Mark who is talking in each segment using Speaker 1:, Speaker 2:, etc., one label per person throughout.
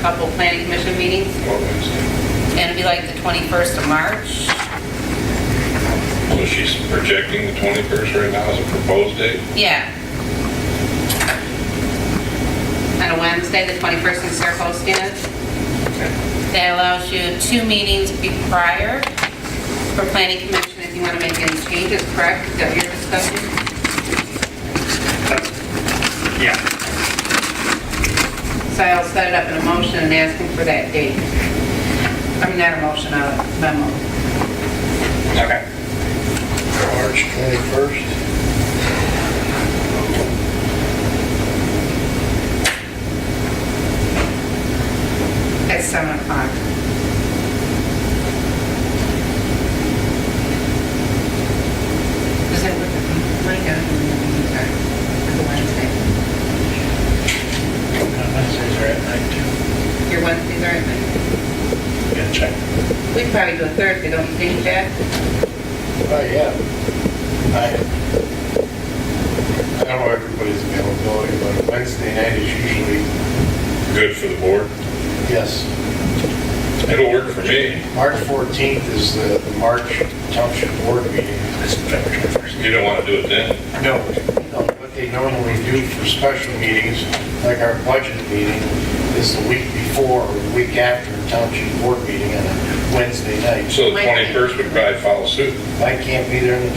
Speaker 1: couple planning commission meetings,
Speaker 2: What Wednesday?
Speaker 1: and it'd be like the 21st of March.
Speaker 2: So she's projecting the 21st right now as a proposed date?
Speaker 1: Yeah. On a Wednesday, the 21st in Saratoga. That allows you two meetings be prior for planning commission if you want to make any changes, correct? Is that your discussion?
Speaker 3: Yeah,
Speaker 1: So I'll set it up in a motion and ask him for that date. I mean, not a motion, a memo.
Speaker 3: okay.
Speaker 4: March 21st.
Speaker 1: At 7 o'clock. Is that what the, what you got in the meeting time for the Wednesday?
Speaker 3: Uh, Wednesdays are at night too.
Speaker 1: Your Wednesdays are at night?
Speaker 3: Gotta check.
Speaker 1: We'd probably do a Thursday, don't you think, Jack?
Speaker 4: Oh, yeah. I I don't know everybody's availability, but Wednesday night is usually,
Speaker 2: Good for the board?
Speaker 4: yes.
Speaker 2: It'll work for me.
Speaker 4: March 14th is the the March Township Board meeting.
Speaker 3: That's February 21st.
Speaker 2: You don't want to do it then?
Speaker 4: No, no, what they normally do for special meetings, like our budget meeting, is the week before or the week after Township Board meeting on a Wednesday night.
Speaker 2: So the 21st would probably follow suit.
Speaker 4: I can't be there on the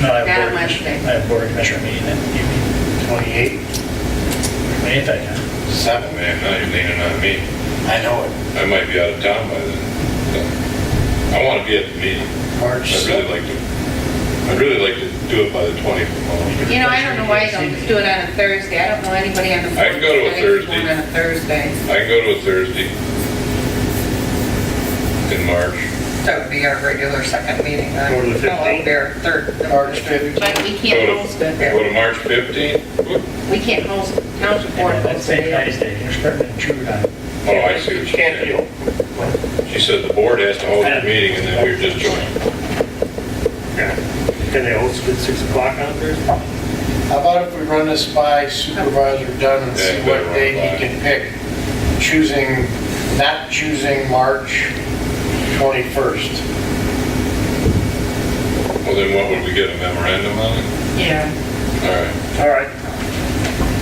Speaker 1: Not
Speaker 3: No, I have board, commission-
Speaker 1: Wednesday.
Speaker 3: I have board commissioner meeting that evening,
Speaker 4: 28th,
Speaker 3: eighth, I can.
Speaker 4: 7th.
Speaker 2: Man, now you're leaning on me.
Speaker 4: I know it.
Speaker 2: I might be out of town by then. I want to be at the meeting.
Speaker 4: March
Speaker 2: I'd really
Speaker 4: 7th.
Speaker 2: like to, I'd really like to do it by the 20th.
Speaker 1: You know, I don't know why you don't just do it on a Thursday. I don't know anybody on the.
Speaker 2: I can go to a
Speaker 1: board that's going
Speaker 2: Thursday.
Speaker 1: On a Thursday,
Speaker 2: I can go to a Thursday in March.
Speaker 5: That would be our regular second meeting then.
Speaker 3: Or the 15th?
Speaker 5: No, our third.
Speaker 4: March 15th.
Speaker 1: but we
Speaker 2: Go to-
Speaker 1: can't host, it.
Speaker 2: Go to March 15th?
Speaker 1: we can't host township board.
Speaker 3: That's
Speaker 1: Wednesday.
Speaker 3: St. Patty's Day, you're starting to intrude on.
Speaker 2: Oh, I see what you're saying. She said the board has to hold a meeting and then we were just joining.
Speaker 3: Can they host it at 6 o'clock on Thursday?
Speaker 4: How about if we run this by Supervisor Dunn and see
Speaker 2: Yeah,
Speaker 4: what
Speaker 2: better run
Speaker 4: day
Speaker 2: it by.
Speaker 4: he can pick, choosing, not choosing March 21st?
Speaker 2: Well, then what would we get, a memorandum on it?
Speaker 1: Yeah,
Speaker 2: All right.
Speaker 3: All right.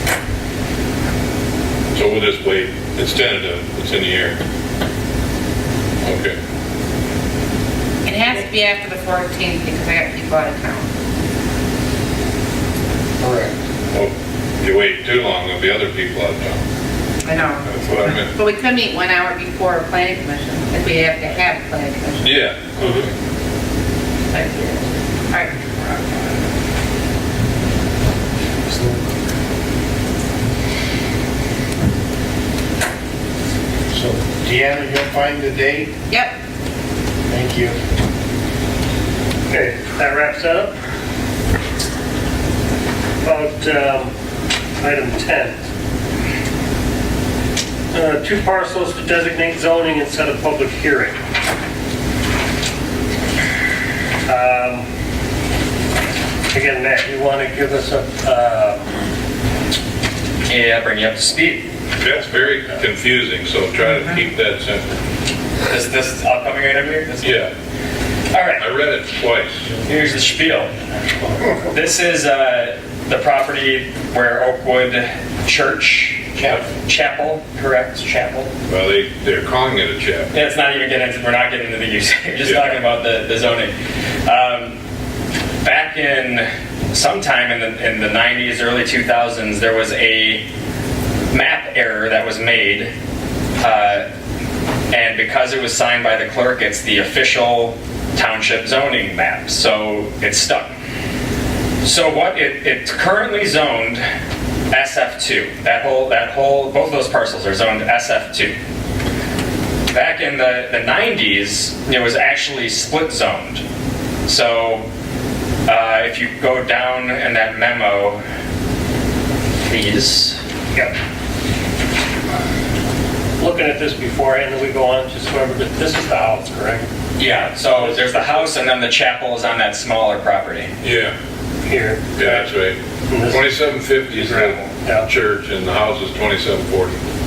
Speaker 2: So we'll just wait. It's tentative. It's in the air. Okay.
Speaker 1: it has to be after the 14th because I got people out of town.
Speaker 4: Correct.
Speaker 2: Well, you wait too long, there'll be other people out of town.
Speaker 1: I know,
Speaker 2: That's what I meant.
Speaker 1: but we could meet one hour before a planning commission, if we have to have a planning commission.
Speaker 2: Yeah.
Speaker 1: All right.
Speaker 4: So Deanna, you'll find the date?
Speaker 1: Yep,
Speaker 4: Thank you.
Speaker 3: Okay, that wraps that up. About um, item 10. Uh, Two parcels to designate zoning instead of public hearing. Um, Again, Matt, you want to give us a, uh,
Speaker 6: Yeah, bring you up to speed.
Speaker 2: That's very confusing, so try to keep that simple.
Speaker 6: Is this upcoming item here? This-
Speaker 2: Yeah,
Speaker 6: All right.
Speaker 2: I read it twice.
Speaker 6: Here's the spiel. This is uh, the property where Oakwood Church
Speaker 4: Chapel.
Speaker 6: Chapel, correct? Chapel.
Speaker 2: Well, they, they're calling it a chapel.
Speaker 6: It's not even getting into. We're not getting into the use. We're just
Speaker 2: Yeah.
Speaker 6: talking about the, the zoning. Um, back in sometime in the in the 90s, early 2000s, there was a map error that was made, uh, and because it was signed by the clerk, it's the official township zoning map. So it's stuck. So what it, it's currently zoned SF2. That whole that whole both those parcels are zoned SF2 back in the, the 90s, it was actually split zoned. So uh, if you go down in that memo, please.
Speaker 3: yeah. looking at this beforehand, and we go on, just remember that this is the house, correct?
Speaker 6: Yeah, so there's the house and then the chapel is on that smaller property.
Speaker 2: Yeah,
Speaker 3: Here.
Speaker 2: yeah, that's right. 2750 is the
Speaker 3: Yeah.
Speaker 2: church and the house is 2740.